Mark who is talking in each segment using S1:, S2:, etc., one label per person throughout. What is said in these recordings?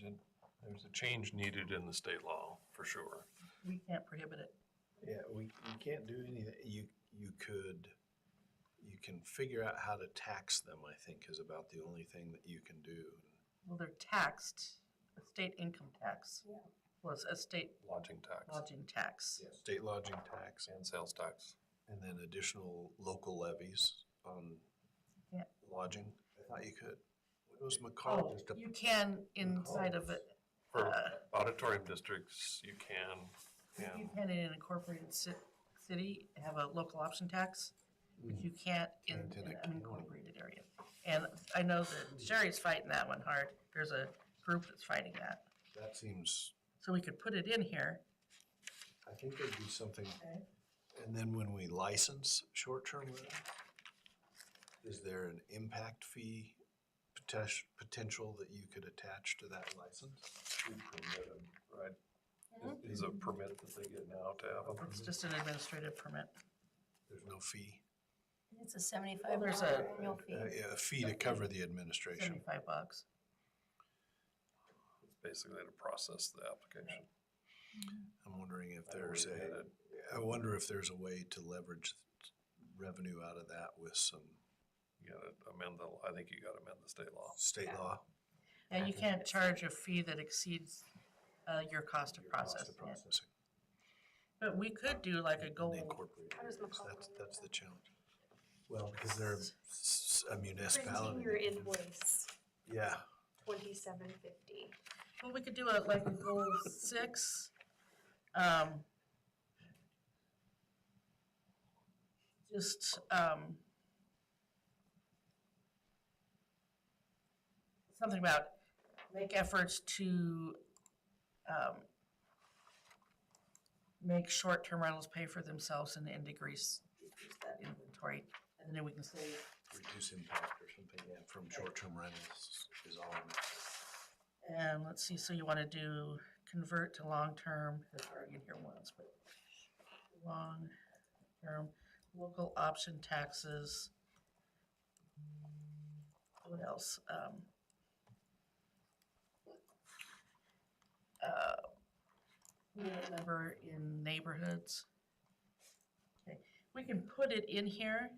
S1: there's a, there's a change needed in the state law, for sure.
S2: We can't prohibit it.
S3: Yeah, we, we can't do anything, you, you could, you can figure out how to tax them, I think, is about the only thing that you can do.
S2: Well, they're taxed, a state income tax.
S4: Yeah.
S2: Was a state
S1: Lodging tax
S2: lodging tax.
S3: State lodging tax
S1: and sales tax.
S3: and then additional local levies on
S2: Yeah.
S3: lodging. I thought you could. It was McCall,
S2: Oh,
S3: just a-
S2: You can inside of it,
S1: For
S2: Uh,
S1: auditorium districts, you can,
S2: you
S1: and
S2: can in an incorporated ci- city have a local option tax, but you can't in
S3: Can't in
S2: an
S3: a county.
S2: unincorporated area. And I know that Sherry's fighting that one hard. There's a group that's fighting that.
S3: that seems,
S2: So we could put it in here.
S3: I think there'd be something.
S2: Okay.
S3: And then when we license short-term rentals, is there an impact fee potes- potential that you could attach to that license?
S1: you permit 'em, right?
S4: Mm-hmm.
S1: Is- Is a permit that they get now to have them?
S2: It's just an administrative permit.
S3: There's no fee?
S4: It's a seventy-five
S2: There's
S4: dollar
S2: a-
S4: annual
S3: Uh,
S4: fee.
S3: yeah, A fee to cover the administration.
S2: Seventy-five bucks.
S1: It's basically to process the application.
S3: I'm wondering if there's
S1: Or
S3: a,
S1: that-
S3: I wonder if there's a way to leverage revenue out of that with some
S1: You gotta amend the, I think you gotta amend the state law.
S3: state
S4: Yeah.
S3: law.
S2: And you can't charge a fee that exceeds uh, your cost of
S3: your cost
S2: processing
S3: of
S2: it.
S3: Processing.
S2: But we could do like a
S3: and
S2: goal.
S3: the incorporated
S4: How does
S3: areas.
S4: McCall
S3: That's,
S4: do
S3: that's
S4: that?
S3: the challenge. Well, because they're s- a
S4: Printing
S3: municipality.
S4: your invoice,
S3: Yeah,
S4: twenty-seven fifty.
S2: Well, we could do a, like a goal six. um, Just, um, something about make efforts to, um, make short-term rentals pay for themselves and and decrease decrease that inventory. And then we can say
S3: reduce impact or something, yeah, from short-term rentals is all. I'm-
S2: And let's see, so you want to do convert to long-term, that's already in here once, but long-term, local option taxes. What else? Um, uh, unit Number uh, in neighborhoods. Okay, We can put it in here.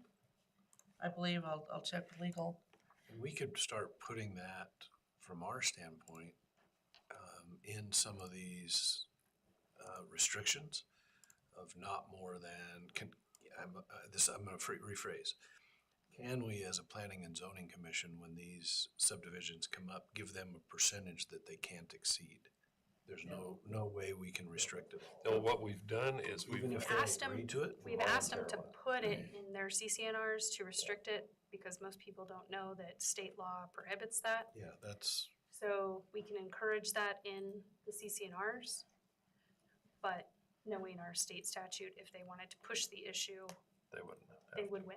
S2: I believe I'll, I'll check with legal.
S3: And we could start putting that from our standpoint um, in some of these uh, restrictions of not more than, can, I'm, uh, this, I'm gonna fre- rephrase. Can we, as a planning and zoning commission, when these subdivisions come up, give them a percentage that they can't exceed? There's no, no way we can restrict it
S1: No,
S3: all.
S1: what we've done is
S3: Even
S1: we've,
S3: if they
S4: Asked 'em-
S3: agree to it?
S4: We've asked them to put it in their CCNRs to restrict it, because most people don't know that state law prohibits that.
S3: Yeah, that's,
S4: So we can encourage that in the CCNRs, but knowing our state statute, if they wanted to push the issue,
S1: they wouldn't.
S4: they
S1: have-
S4: would win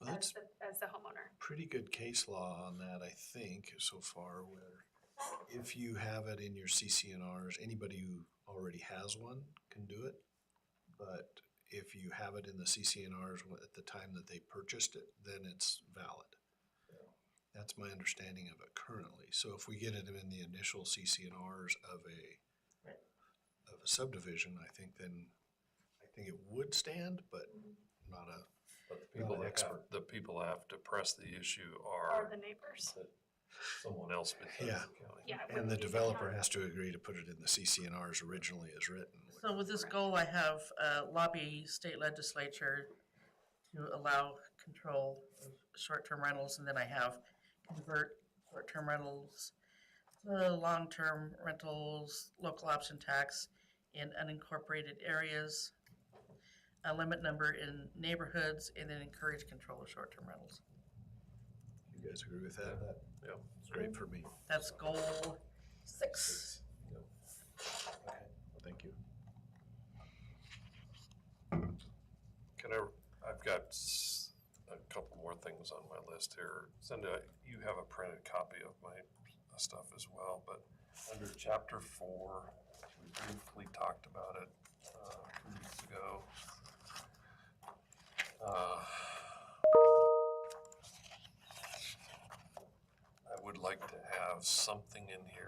S3: well, that's
S4: as the, as the homeowner.
S3: pretty good case law on that, I think, so far, where if you have it in your CCNRs, anybody who already has one can do it. But if you have it in the CCNRs wh- at the time that they purchased it, then it's valid. That's my understanding of it currently. So if we get it in the initial CCNRs of a,
S2: Right.
S3: of a subdivision, I think then, I think it would stand, but not a
S1: But the people
S3: an
S1: that have,
S3: expert.
S1: the people that have to press the issue
S4: Or
S1: are
S4: the neighbors.
S1: someone else besides
S3: Yeah.
S1: the county.
S4: Yeah. it
S3: And
S4: wouldn't
S3: the
S4: be
S3: developer
S4: county.
S3: has to agree to put it in the CCNRs originally as written.
S2: So with this goal, I have uh, lobby state legislature to allow control of short-term rentals, and then I have convert short-term rentals to long-term rentals, local option tax in unincorporated areas, a limit number in neighborhoods, and then encourage control of short-term rentals.
S3: You guys agree with that?
S1: Yeah.
S3: It's great for me.
S2: That's goal six.
S3: Thank you.
S1: Can I, I've got s- a couple more things on my list here. Cindy, you have a printed copy of my stuff as well, but under chapter four, we briefly talked about it uh, two weeks ago. Uh, I would like to have something in here